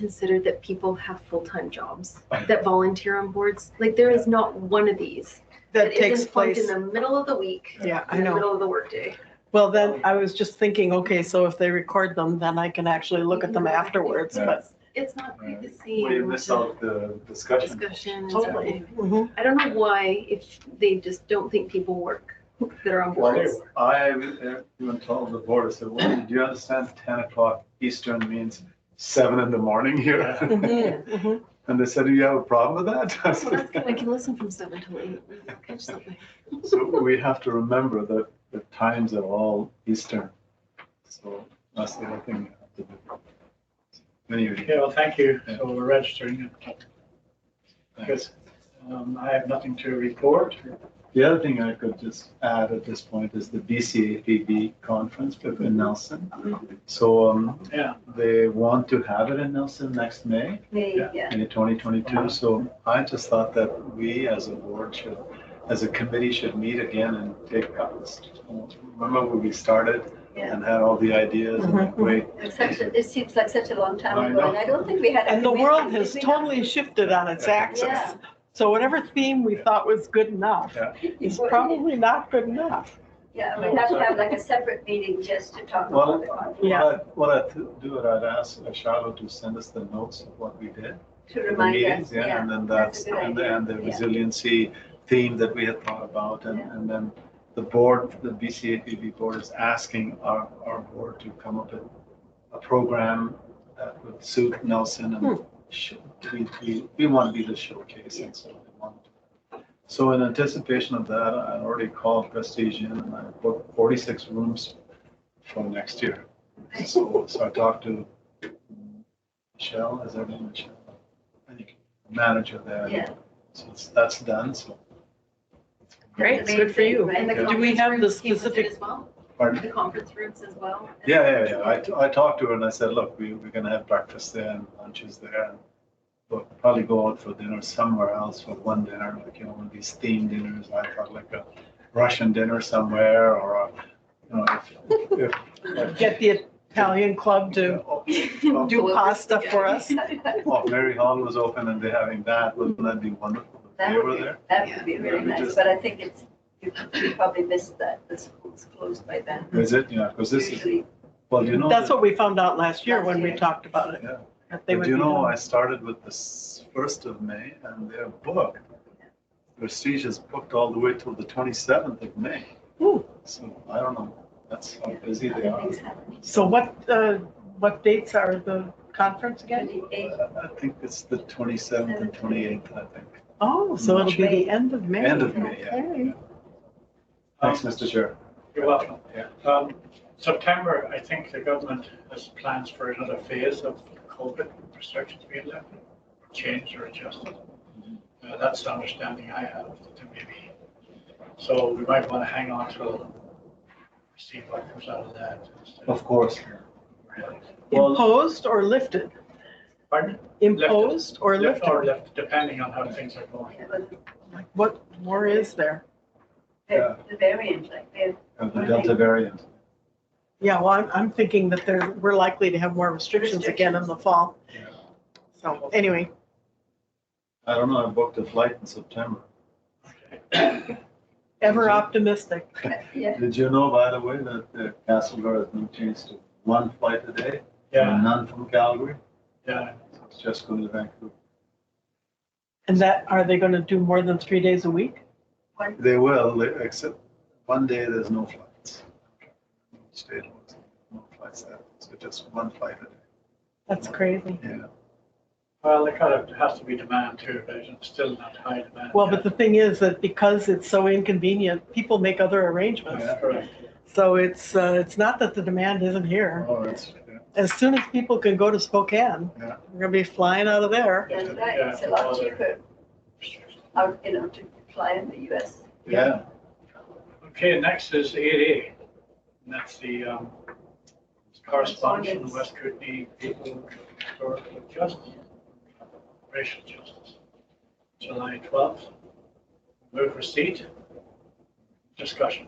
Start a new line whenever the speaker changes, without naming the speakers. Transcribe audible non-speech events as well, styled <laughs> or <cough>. considered that people have full-time jobs that volunteer on boards. Like there is not one of these
that takes
isn't plugged
place.
in the middle of the week,
Yeah, I
in the
know.
middle of the workday.
Well, then I was just thinking, okay, so if they record them, then I can actually look at them
Yeah.
afterwards, but.
It's not quite the same.
We miss
to
out the discussion.
Discussion. and
Totally.
stuff.
Mhm.
I don't know why if they just don't think people work that are on boards.
Well, I even told the board, I said, well, do you understand ten o'clock Eastern means seven in the morning here?
Mhm, mhm.
<laughs> And they said, do you have a problem with that? <laughs> I
Well, that's good. I
said,
can listen from seven till eight.
<laughs>
I'll catch something.
So we have to remember that the times are all Eastern. So that's the other thing we have to do. Anyway,
Okay, well, thank you. So we're registering. it. Good. Um, I have nothing to report.
the other thing I could just add at this point is the BCAPB conference in Nelson.
Mm-hmm.
So um,
Yeah,
they want to have it in Nelson next May.
May, yeah.
in 2022. So I just thought that we as a board should, as a committee should meet again and take up this. Remember when we started
Yeah. Mm-hmm.
and had all the ideas and wait,
It's such a- It seems like such a long
I
time ago, and
know.
I don't think we had. a
And the world
committee.
has
Did we have-
totally shifted on its axis.
Yeah.
So whatever theme we thought was good enough is probably not good enough.
Yeah, we have to have like a separate meeting just to talk
Well,
about the content,
what I, what I do, it, I'd ask Charlotte to send us the notes of what we did.
to
the
remind
meetings,
us,
Yeah,
yeah.
and then
that's
that's,
a good
and
idea,
and the
yeah.
resiliency theme that we had thought about and,
Yeah.
and then the board, the BCAPB board is asking our, our board to come up with a program that would suit Nelson and
Hmm.
sh- we, we, we want to be the showcase and so we want. So in anticipation of that, I already called Prestige Inn and I booked forty-six rooms for next year. So, so I talked to Michelle, is her name Michelle? I think manager there.
Yeah.
So it's- that's done, so,
Great, good for you.
Right.
And the
Do we
conference
have the
rooms came with it
specific-
As well,
pardon?
the conference rooms as well.
Yeah, yeah, yeah, I, t- I talked to her and I said, look, we, we're gonna have breakfast there and lunches there. and We'll probably go out for dinner somewhere else for one dinner, like, you know, one of these themed dinners, I thought like a Russian dinner somewhere or, a, you know, if- if, if.
Get the Italian club to
Oh,
Yeah.
<laughs> do pasta
<laughs>
for us.
oh, Mary Hall was open and they're having that, wouldn't that be wonderful? if They
That
were
would be,
there,
that would be
Yeah,
really
we
nice,
just-
but I think it's, you you probably missed that, the school's closed by then.
is it, yeah, because this is,
Usually,
well, you know.
That's
that-
what we found out last year
Last
when we
year.
talked about it.
Yeah.
that they
But
would
you
be
know,
done.
I started with this first of May and they're booked. Prestige is booked all the way till the twenty-seventh of May.
Ooh.
So I don't know, that's how busy they
other
are.
things happen.
So what, uh, what dates are the conference again?
Twenty-eight,
I think it's the twenty-seventh and twenty-eighth, I think.
Oh, so it'll be the end of May.
End of May, yeah.
Okay.
Thanks, Mr. Chair.
you're welcome.
Yeah.
Um, September, I think the government has plans for another phase of COVID restrictions being lifted, changed or adjusted.
Mm-hmm.
Uh, That's the understanding I have, to maybe. So we might want to hang on till see what comes out of that.
Of course. Well,
Imposed or lifted?
Pardon?
Imposed or
Left
lifted?
or left, depending on how things are going.
it was
Like, What more is there?
the the variant, like they're
and the Delta variant,
Yeah, well, I'm, I'm thinking that there, we're likely to have more restrictions again in the fall.
Yeah.
So anyway,
I don't know, I booked a flight in September.
ever
Mm-hmm.
optimistic.
yeah,
Did you know, by the way, that uh, Castlegar has been changed to one flight a day?
Yeah,
None from Calgary,
yeah.
So it's just going to Vancouver.
And that, are they going to do more than three days a week?
one,
They will, they- except one day there's no flights. State ones, no flights there, so just one flight a
That's crazy.
day, yeah.
Well, there kind of has to be demand too, but it's still not high demand.
Well,
yet.
but the thing is that because it's so inconvenient, people make other arrangements.
That's correct.
So it's, uh, it's not that the demand isn't here.
Oh, that's, yeah.
As soon as people can go to Spokane,
Yeah.
we're going to be flying out of there.
that's right, it's a lot cheaper out, you know, to fly in the US.
yeah,
Okay, next is eight A. And that's the um, correspondence from the West Kootenai People Historical Justice, Racial Justice, July twelfth. Move receipt. Discussion.